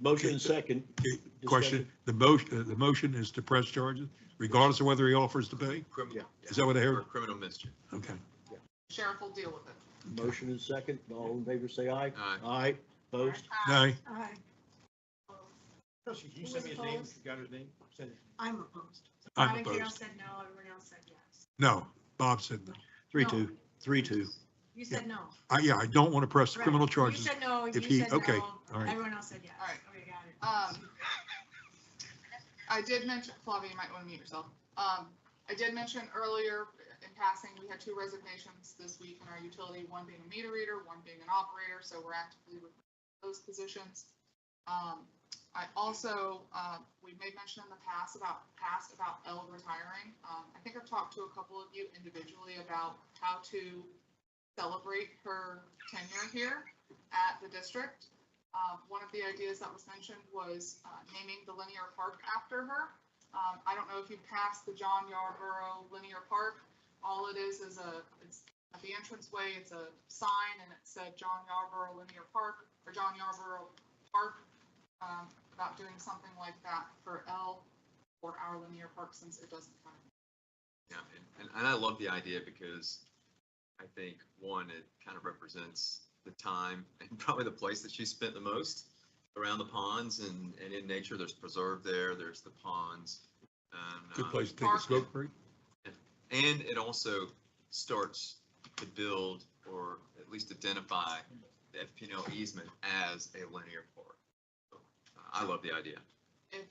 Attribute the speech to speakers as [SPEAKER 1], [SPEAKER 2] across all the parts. [SPEAKER 1] Motion and second.
[SPEAKER 2] Okay, Question, the motion, uh, the motion is to press charges regardless of whether he offers to pay?
[SPEAKER 3] Criminal,
[SPEAKER 2] Is that what I
[SPEAKER 3] for
[SPEAKER 2] heard?
[SPEAKER 3] criminal mischief.
[SPEAKER 2] Okay.
[SPEAKER 4] Sheriff will deal with it.
[SPEAKER 1] Discussion. Motion and second. All in favor, say aye.
[SPEAKER 3] Aye.
[SPEAKER 1] Aye. Opposed?
[SPEAKER 2] Nay,
[SPEAKER 5] Aye.
[SPEAKER 6] Trustee, can you
[SPEAKER 5] Who
[SPEAKER 6] send me
[SPEAKER 5] was
[SPEAKER 6] his name?
[SPEAKER 5] opposed?
[SPEAKER 6] You got his name? Send it.
[SPEAKER 5] I'm opposed.
[SPEAKER 2] I'm
[SPEAKER 5] Abigail
[SPEAKER 2] opposed.
[SPEAKER 5] said no, everyone else said yes.
[SPEAKER 2] No, Bob said no.
[SPEAKER 1] Three,
[SPEAKER 5] No.
[SPEAKER 1] two. Three, two.
[SPEAKER 5] You said no.
[SPEAKER 2] I, yeah, I don't want to press the
[SPEAKER 5] Right.
[SPEAKER 2] criminal
[SPEAKER 5] You
[SPEAKER 2] charges.
[SPEAKER 5] said no, you
[SPEAKER 2] if he-
[SPEAKER 5] said
[SPEAKER 2] okay,
[SPEAKER 5] no,
[SPEAKER 2] all right.
[SPEAKER 5] everyone else said yes.
[SPEAKER 4] All right.
[SPEAKER 5] Okay, got it.
[SPEAKER 4] Um, I did mention, Flavia, you might want to mute yourself. Um, I did mention earlier in passing, we had two resignations this week in our utility, one being a meter reader, one being an operator, so we're actively recruiting those positions. Um, I also, uh, we made mention in the past about, past about L retiring. Um, I think I've talked to a couple of you individually about how to celebrate her tenure here at the district. Um, one of the ideas that was mentioned was uh, naming the linear park after her. Um, I don't know if you passed the John Yarborough Linear Park. All it is is a, it's at the entranceway, it's a sign and it said John Yarborough Linear Park or John Yarborough Park. Um, about doing something like that for L or our linear park since it doesn't kind of.
[SPEAKER 3] Yeah, and, and I love the idea because I think, one, it kind of represents the time and probably the place that she spent the most around the ponds and, and in nature, there's preserve there, there's the ponds. and,
[SPEAKER 2] Good
[SPEAKER 3] um,
[SPEAKER 2] place to take a smoke break.
[SPEAKER 3] And it also starts to build or at least identify the FPL easement as a linear park. So, uh, I love the idea.
[SPEAKER 4] If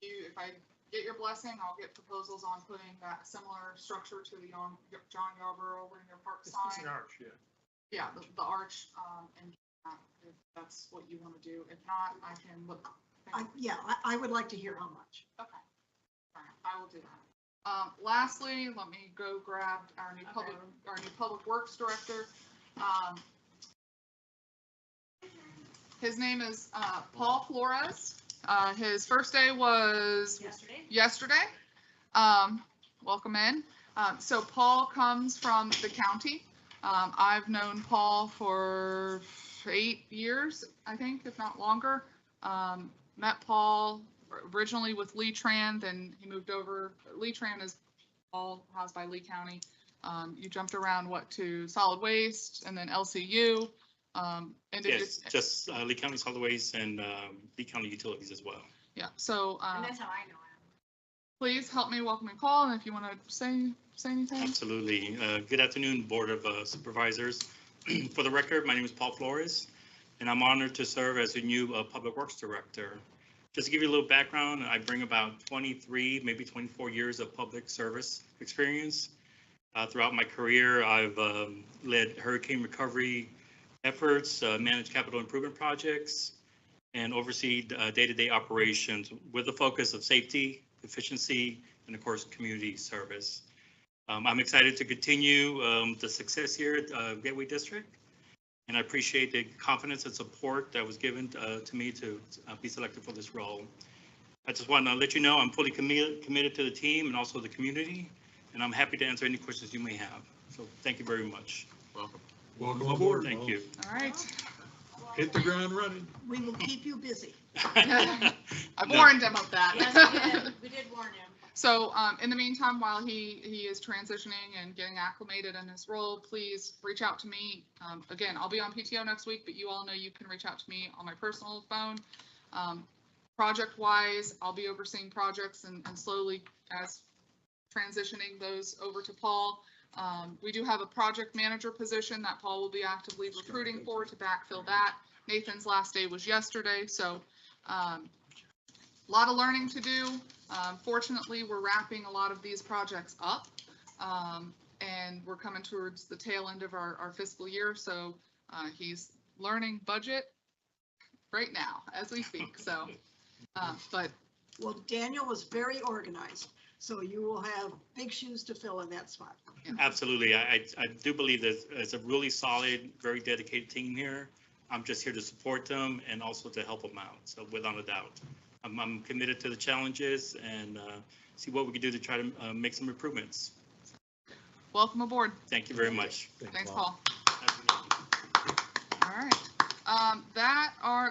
[SPEAKER 4] you, if I get your blessing, I'll get proposals on putting that similar structure to the Yon- John Yarborough Linear Park
[SPEAKER 6] It's
[SPEAKER 4] sign.
[SPEAKER 6] it's an arch, yeah.
[SPEAKER 4] Yeah, the, the arch, um, and uh, if that's what you want to do. If not, I can look.
[SPEAKER 5] I- Yeah, I, I would like to hear how much.
[SPEAKER 4] Okay. All right, I will do that. Um, lastly, let me go grab our new public, our new public works director. Um, his name is, uh, Paul Flores. Uh, his first day was
[SPEAKER 5] Yesterday?
[SPEAKER 4] yesterday. Um, welcome in. Um, so Paul comes from the county. Um, I've known Paul for eight years, I think, if not longer. Um, met Paul originally with Lee Tran, then he moved over. Lee Tran is all housed by Lee County. Um, you jumped around, what, to solid waste and then LCU. Um, and it
[SPEAKER 7] Yes,
[SPEAKER 4] is-
[SPEAKER 7] just uh, Lee County Solid Waste and um, Lee County Utilities as well.
[SPEAKER 4] yeah, so,
[SPEAKER 5] And
[SPEAKER 6] Um,
[SPEAKER 4] uh,
[SPEAKER 5] that's how I know him.
[SPEAKER 4] please help me welcome and call. And if you want to say, say anything.
[SPEAKER 7] Absolutely. Uh, Good afternoon, Board of uh, Supervisors. For the record, my name is Paul Flores, and I'm honored to serve as your new uh, Public Works Director. Just to give you a little background, I bring about 23, maybe 24 years of public service experience. Uh, Throughout my career, I've um, led hurricane recovery efforts, uh, managed capital improvement projects, and overseen uh, day-to-day operations with a focus of safety, efficiency, and of course, community service. Um, I'm excited to continue, um, the success here at, uh, Gateway District. And I appreciate the confidence and support that was given, uh, to me to, uh, be selected for this role. I just want to let you know I'm fully committed, committed to the team and also the community, and I'm happy to answer any questions you may have. So thank you very much.
[SPEAKER 3] Welcome.
[SPEAKER 2] Welcome aboard.
[SPEAKER 7] Thank you.
[SPEAKER 4] All right.
[SPEAKER 2] Hit the ground running.
[SPEAKER 5] We will keep you busy.
[SPEAKER 4] I
[SPEAKER 7] No.
[SPEAKER 4] warned him of
[SPEAKER 5] Yes, we
[SPEAKER 4] that.
[SPEAKER 5] did. We did warn him.
[SPEAKER 4] So, um, in the meantime, while he, he is transitioning and getting acclimated in his role, please reach out to me. Um, again, I'll be on PTO next week, but you all know you can reach out to me on my personal phone. Um, project wise, I'll be overseeing projects and, and slowly as transitioning those over to Paul. Um, we do have a project manager position that Paul will be actively recruiting for to backfill that. Nathan's last day was yesterday, so, um, lot of learning to do. Um, fortunately, we're wrapping a lot of these projects up. Um, and we're coming towards the tail end of our, our fiscal year, so, uh, he's learning budget right now as we speak, so. Uh, but
[SPEAKER 8] Well, Daniel was very organized, so you will have big shoes to fill in that spot.
[SPEAKER 7] Absolutely. I, I- I do believe that it's a really solid, very dedicated team here. I'm just here to support them and also to help them out. So without a doubt, I'm, I'm committed to the challenges and uh, see what we can do to try to uh, make some improvements.
[SPEAKER 4] welcome aboard.
[SPEAKER 7] Thank you very much.
[SPEAKER 4] Thanks, Paul.
[SPEAKER 7] Have a good night.
[SPEAKER 4] All right. Um, that are,